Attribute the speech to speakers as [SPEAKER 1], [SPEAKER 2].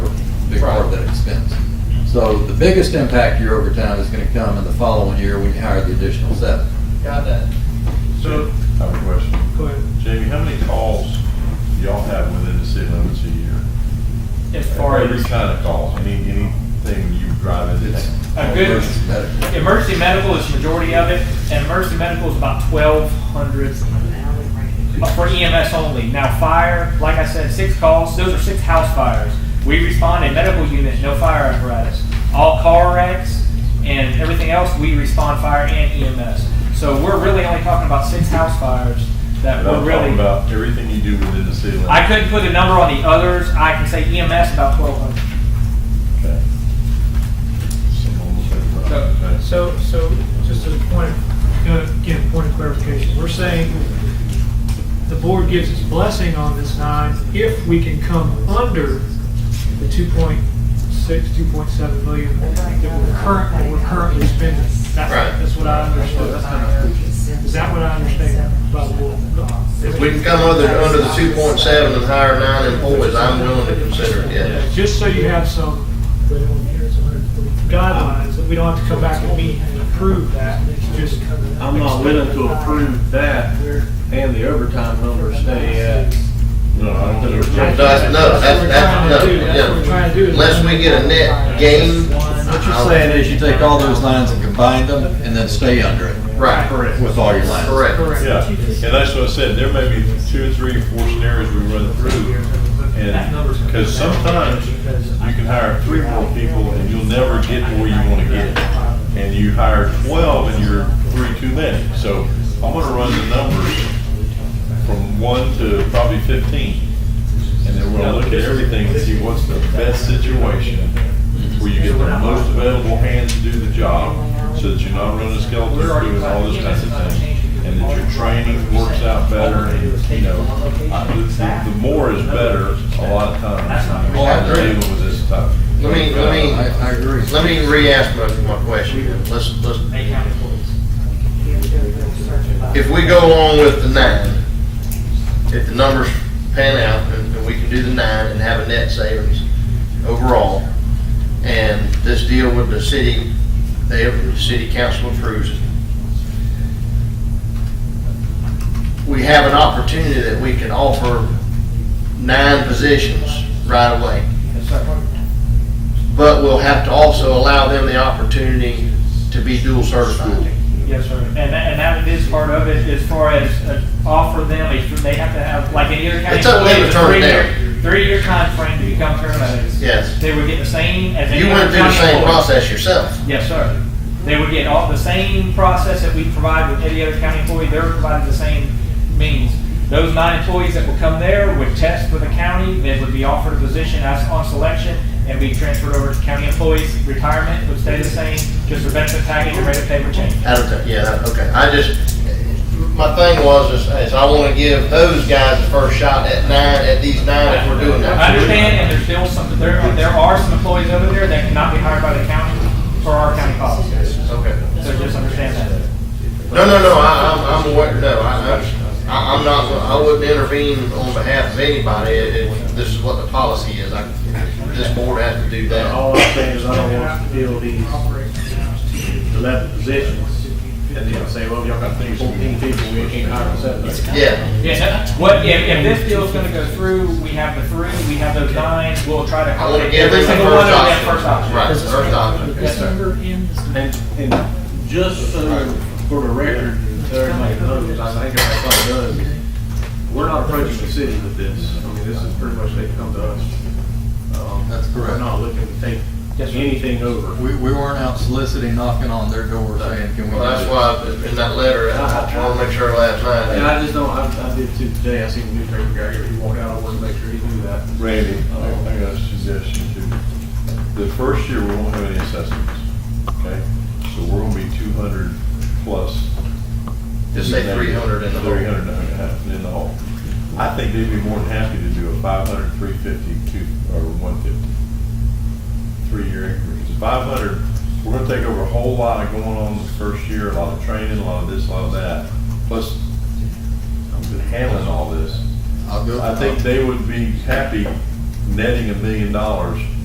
[SPEAKER 1] that expense. So the biggest impact year over time is gonna come in the following year when you hire the additional seven.
[SPEAKER 2] Got that.
[SPEAKER 3] So,
[SPEAKER 4] I have a question.
[SPEAKER 3] go ahead.
[SPEAKER 4] Jamie, how many calls do y'all have within the city limits a year?
[SPEAKER 3] As far
[SPEAKER 4] Every
[SPEAKER 3] as,
[SPEAKER 4] kind of calls, any, anything you drive in,
[SPEAKER 1] It's
[SPEAKER 4] it's
[SPEAKER 3] A good-
[SPEAKER 1] versus medical.
[SPEAKER 3] emergency medical is majority of it, and emergency medical is about twelve hundred for EMS only. Now, fire, like I said, six calls, those are six house fires. We respond in medical unit, no fire apparatus. All car wrecks and everything else, we respond fire and EMS. So we're really only talking about six house fires that
[SPEAKER 4] And
[SPEAKER 3] we're
[SPEAKER 4] I'm talking
[SPEAKER 3] really,
[SPEAKER 4] about everything you do within the city limits.
[SPEAKER 3] I couldn't put a number on the others. I can say EMS about twelve hundred.
[SPEAKER 4] Okay. Someone will think about it,
[SPEAKER 2] So,
[SPEAKER 4] okay.
[SPEAKER 2] so, so, just a point, gonna get a point of clarification. We're saying the board gives its blessing on this nine if we can come under the two point six, two point seven million that we're current, that we're currently spending. That's,
[SPEAKER 5] Right.
[SPEAKER 2] that's what I understood. Is that what I understand about the board?
[SPEAKER 5] If we can come under, under the two point seven and hire nine employees, I'm willing to consider it,
[SPEAKER 2] Yeah,
[SPEAKER 5] yes.
[SPEAKER 2] Just so you have some guidelines, that we don't have to come back and meet and approve that, just.
[SPEAKER 6] I'm not willing to approve that and the overtime number stay at.
[SPEAKER 4] No, I don't think
[SPEAKER 6] Yeah.
[SPEAKER 4] we're.
[SPEAKER 5] That's, no, that's,
[SPEAKER 2] That's what we're
[SPEAKER 5] that's,
[SPEAKER 2] trying to
[SPEAKER 5] no,
[SPEAKER 2] do. That's what we're
[SPEAKER 5] yeah.
[SPEAKER 2] trying to do. is-
[SPEAKER 5] Unless we get a net gain.
[SPEAKER 6] What
[SPEAKER 5] I'll-
[SPEAKER 6] you're saying is you
[SPEAKER 1] You take all those lines and combine them and then stay under it
[SPEAKER 5] Right,
[SPEAKER 6] Correct.
[SPEAKER 1] with all your lines.
[SPEAKER 5] correct.
[SPEAKER 2] Correct.
[SPEAKER 4] Yeah, and that's what I said, there may be two or three, four scenarios we run through. And, because sometimes you can hire three, four people and you'll never get to where you want to get. And you hire twelve and you're three too many. So I'm gonna run the numbers from one to probably fifteen. And then we're gonna look at everything and see what's the best situation where you get the most available hands to do the job so that you're not running skeleton crew and all this kind of thing and that your training works out better, and, you know, I- the, the more is better a lot of times.
[SPEAKER 1] Well, I
[SPEAKER 4] I'm
[SPEAKER 1] agree.
[SPEAKER 4] able with this stuff.
[SPEAKER 5] Let me, let
[SPEAKER 1] I,
[SPEAKER 5] me,
[SPEAKER 1] I agree.
[SPEAKER 5] let me re-ask my, my question. Let's, let's, if we go along with the nine, if the numbers pan out and and we can do the nine and have a net savings overall, and this deal with the city, they, the city council approves it, we have an opportunity that we can offer nine positions right away. But we'll have to also allow them the opportunity to be dual certified.
[SPEAKER 3] Yes, sir. And that, and that is part of it, as far as uh, offer them, a they have to have, like any other county.
[SPEAKER 5] It's up to them to turn it
[SPEAKER 3] employee,
[SPEAKER 5] down.
[SPEAKER 3] a three-year- Three-year timeframe to become paramedics.
[SPEAKER 5] Yes.
[SPEAKER 3] They would get the same as. any
[SPEAKER 5] You went
[SPEAKER 3] other
[SPEAKER 5] through the
[SPEAKER 3] county
[SPEAKER 5] same
[SPEAKER 3] employee.
[SPEAKER 5] process yourself.
[SPEAKER 3] Yes, sir. They would get all the same process that we provide with any other county employee, they're provided the same means. Those nine employees that would come there would test with the county, they would be offered a position as on selection and be transferred over to county employees. Retirement would stay the same, just the benefit package and rate of pay would change.
[SPEAKER 5] Out of town, yeah, that- okay. I just, my thing was is, is I want to give those guys the first shot at nine, at these nine if we're doing
[SPEAKER 3] I
[SPEAKER 5] that.
[SPEAKER 3] understand, and there's still some, there, there are some employees over there that cannot be hired by the county for our county policies.
[SPEAKER 5] Okay.
[SPEAKER 3] So just understand that.
[SPEAKER 5] No, no, no, I, I'm, I'm aware, no, I, I- I'm not, I wouldn't intervene on behalf of anybody if if this is what the policy is. I- This board has to do that.
[SPEAKER 6] All I'm saying is I don't want to fill these eleven positions and then say, well, y'all got fourteen people, we can't hire seven.
[SPEAKER 5] Yeah.
[SPEAKER 3] Yeah, no, what, if, if this deal's gonna go through, we have the three, we have those nine, we'll try to
[SPEAKER 5] I want to
[SPEAKER 3] accommodate
[SPEAKER 5] give them
[SPEAKER 3] every
[SPEAKER 5] the
[SPEAKER 3] single one of
[SPEAKER 5] first
[SPEAKER 3] them
[SPEAKER 5] option.
[SPEAKER 3] first option.
[SPEAKER 5] Right, first option.
[SPEAKER 3] Yes, sir.
[SPEAKER 6] And, and just so for the record, everybody knows, I think everybody does, we're not approaching the city with this. I mean, this is pretty much they come to us. Um,
[SPEAKER 1] That's correct.
[SPEAKER 6] We're not looking to take
[SPEAKER 3] Yes, sir.
[SPEAKER 6] anything over.
[SPEAKER 1] We, we weren't out soliciting, knocking on their door saying, can we?
[SPEAKER 5] Well,
[SPEAKER 1] do it?"
[SPEAKER 5] that's why in that letter, I want to make sure last night.
[SPEAKER 6] And I just don't, I, I did too today, I seen the newspaper guy here, he walked out, I wanted to make sure he knew that.
[SPEAKER 4] Randy, I I got a suggestion too. The first year, we won't have any assessments, okay? So we're gonna be two hundred plus.
[SPEAKER 5] Just say 300 in the hole.
[SPEAKER 4] Three hundred and a half in the hole. I think they'd be more than happy to do a 500, 350, two, or one fifty. Three-year increase. Five hundred, we're gonna take over a whole lot of going on the first year, a lot of training, a lot of this, a lot of that. Plus, I'm handling all this.
[SPEAKER 1] I'll go.
[SPEAKER 4] I think they would be happy netting a million dollars